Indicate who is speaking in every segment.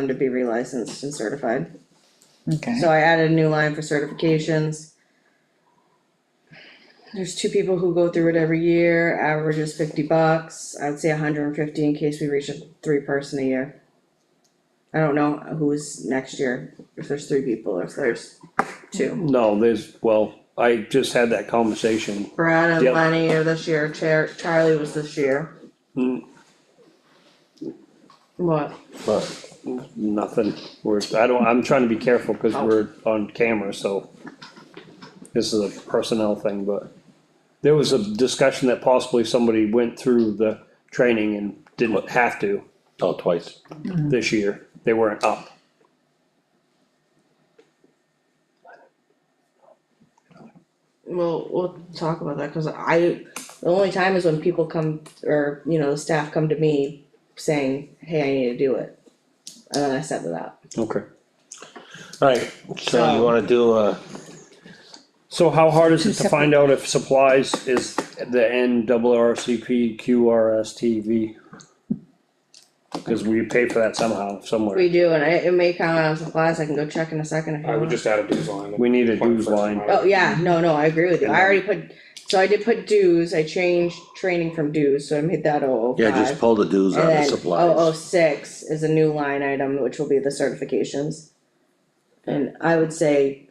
Speaker 1: them to be relicensed and certified.
Speaker 2: Okay,
Speaker 1: So I added a new line for certifications. There's two people who go through it every year, average is fifty bucks, I'd say hundred and fifty in case we reach a three person a year. I don't know who's next year, if there's three people, or if there's two.
Speaker 3: No, there's, well, I just had that conversation.
Speaker 1: Brad and
Speaker 3: Yep.
Speaker 1: Lenny are this year, Char- Charlie was this year.
Speaker 3: Hmm.
Speaker 1: What?
Speaker 3: But nothing, we're, I don't, I'm trying to be careful, cause
Speaker 4: Oh.
Speaker 3: we're on camera, so. This is a personnel thing, but there was a discussion that possibly somebody went through the training and didn't have to
Speaker 4: Oh, twice.
Speaker 3: this year, they weren't up.
Speaker 1: Well, we'll talk about that, cause I, the only time is when people come, or, you know, the staff come to me saying, hey, I need to do it. And then I set it up.
Speaker 3: Okay.
Speaker 4: Alright, so you wanna do uh, a,
Speaker 3: So how hard is it to find out if supplies is the N double R C P Q R S T V? Cause we pay for that somehow, somewhere,
Speaker 1: We do, and I, it may count on supplies, I can go check in a second if you
Speaker 5: I would
Speaker 1: want.
Speaker 5: just add a dues line.
Speaker 3: we need a dues line,
Speaker 1: Oh, yeah, no, no, I agree with you, I already put, so I did put dues, I changed training from dues, so I made that oh oh five.
Speaker 4: yeah, just pull the dues on the
Speaker 1: And then oh oh
Speaker 4: supplies.
Speaker 1: six is a new line item, which will be the certifications. And I would say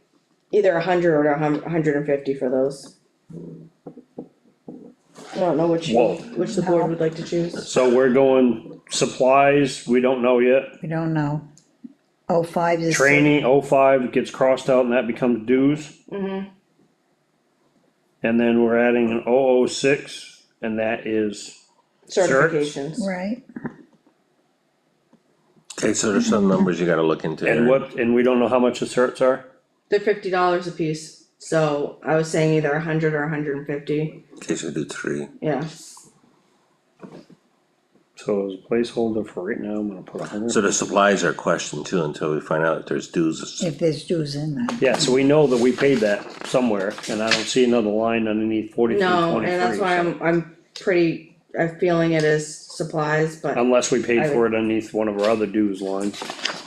Speaker 1: either a hundred or a hun- hundred and fifty for those. I don't know which,
Speaker 3: Whoa.
Speaker 1: which the board would like to choose.
Speaker 3: so we're going supplies, we don't know yet.
Speaker 2: we don't know. Oh, five is.
Speaker 3: Training, oh five gets crossed out and that becomes dues,
Speaker 1: Mm-hmm.
Speaker 3: and then we're adding an oh oh six, and that is,
Speaker 1: Certifications,
Speaker 2: Right,
Speaker 4: Okay, so there's some numbers you gotta look into.
Speaker 3: and
Speaker 4: there.
Speaker 3: what, and we don't know how much the certs are?
Speaker 1: they're fifty dollars a piece, so I was saying either a hundred or a hundred and fifty,
Speaker 4: Okay, so do three.
Speaker 1: yeah.
Speaker 3: So as a placeholder for right now, I'm gonna put a hundred.
Speaker 4: So the supplies are questioned too until we find out if there's dues.
Speaker 2: if there's dues in there.
Speaker 3: Yeah, so we know that we paid that somewhere, and I don't see another line underneath forty-three
Speaker 1: No, and
Speaker 3: twenty-three.
Speaker 1: that's why
Speaker 3: so-
Speaker 1: I'm, I'm pretty, I'm feeling it as supplies, but
Speaker 3: Unless we
Speaker 1: I
Speaker 3: paid for it underneath one of our other dues lines.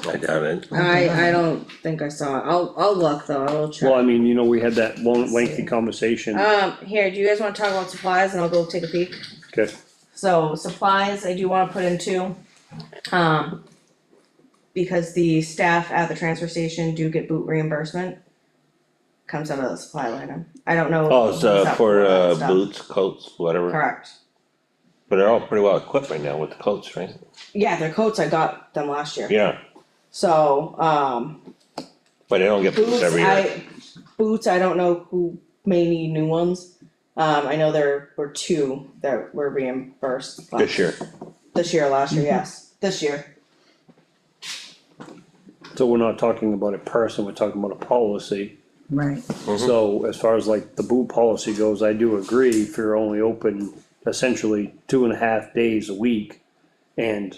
Speaker 4: I doubt it.
Speaker 1: I, I don't think I saw it, I'll, I'll look though, I will check.
Speaker 3: Well, I mean, you know, we had that long lengthy
Speaker 2: see.
Speaker 3: conversation,
Speaker 1: Um, here, do you guys wanna talk about supplies and I'll go take a peek?
Speaker 3: okay,
Speaker 1: So supplies, I do wanna put in two. Um, because the staff at the transfer station do get boot reimbursement. Comes out of the supply line item. I don't know.
Speaker 4: Oh, it's
Speaker 1: what's
Speaker 4: uh
Speaker 1: up
Speaker 4: for
Speaker 1: with all that
Speaker 4: uh
Speaker 1: stuff.
Speaker 4: boots, coats, whatever,
Speaker 1: Correct.
Speaker 4: but they're all pretty well equipped right now with the coats, right?
Speaker 1: Yeah, their coats, I got them last year.
Speaker 4: Yeah,
Speaker 1: So, um,
Speaker 4: but they don't get boots
Speaker 1: Boots,
Speaker 4: every year.
Speaker 1: I, boots, I don't know who may need new ones. Um, I know there were two that were reimbursed. last-
Speaker 4: This year,
Speaker 1: This year, last year, yes, this year,
Speaker 3: so we're not talking about a person, we're talking about a policy.
Speaker 2: Right,
Speaker 3: So as far as like the boot policy goes, I do agree, if you're only open essentially two and a half days a week. And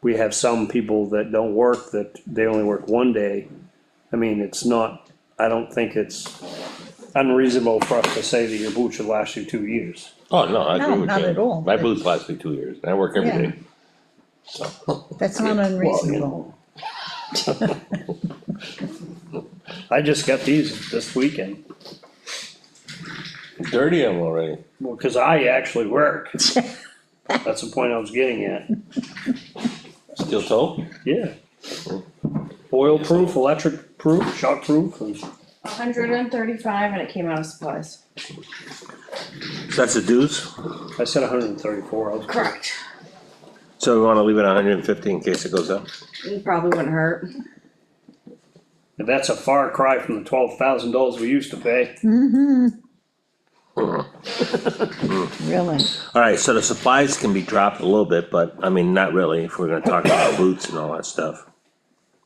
Speaker 3: we have some people that don't work, that they only work one day. I mean, it's not, I don't think it's unreasonable for us to say that your boot should last you two years.
Speaker 4: oh, no, I agree
Speaker 2: No,
Speaker 4: with you.
Speaker 2: not at all,
Speaker 4: My
Speaker 2: but-
Speaker 4: boots last me two years, and I work every
Speaker 2: Yeah.
Speaker 4: day. So,
Speaker 2: that's not unreasonable.
Speaker 3: I just got these this weekend,
Speaker 4: dirty I'm already.
Speaker 3: well, cause I actually work. That's the point I was getting at,
Speaker 4: Steel toe?
Speaker 3: yeah. Oil proof, electric proof, shock proof, and.
Speaker 1: hundred and thirty-five and it came out of supplies.
Speaker 4: So that's the dues?
Speaker 3: I said hundred and thirty-four, I was.
Speaker 1: Correct.
Speaker 4: So we wanna leave it at hundred and fifty in case it goes up?
Speaker 1: It Probably wouldn't hurt.
Speaker 3: That's a far cry from the twelve thousand dollars we used to pay.
Speaker 2: Really,
Speaker 4: Alright, so the supplies can be dropped a little bit, but I mean, not really, if we're gonna talk about boots and all that stuff.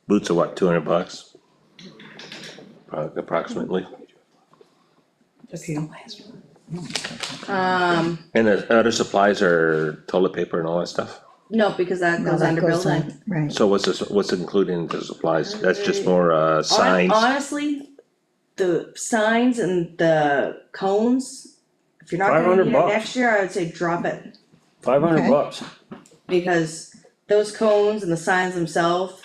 Speaker 4: Boots are what, two hundred bucks? Pro- Approximately,
Speaker 1: A few. Um,
Speaker 4: and the other supplies are toilet paper and all that stuff?
Speaker 1: no, because that
Speaker 2: well,
Speaker 1: goes
Speaker 2: that
Speaker 1: under
Speaker 2: goes
Speaker 1: building.
Speaker 2: on, right,
Speaker 4: So what's this, what's included in the supplies, that's just more uh
Speaker 1: Hon-
Speaker 4: signs,
Speaker 1: Honestly, the signs and the cones, if you're not gonna
Speaker 3: 500
Speaker 1: need it
Speaker 3: bucks.
Speaker 1: next year, I would say drop it.
Speaker 3: Five hundred
Speaker 2: Okay.
Speaker 3: bucks.
Speaker 1: because those cones and the signs themselves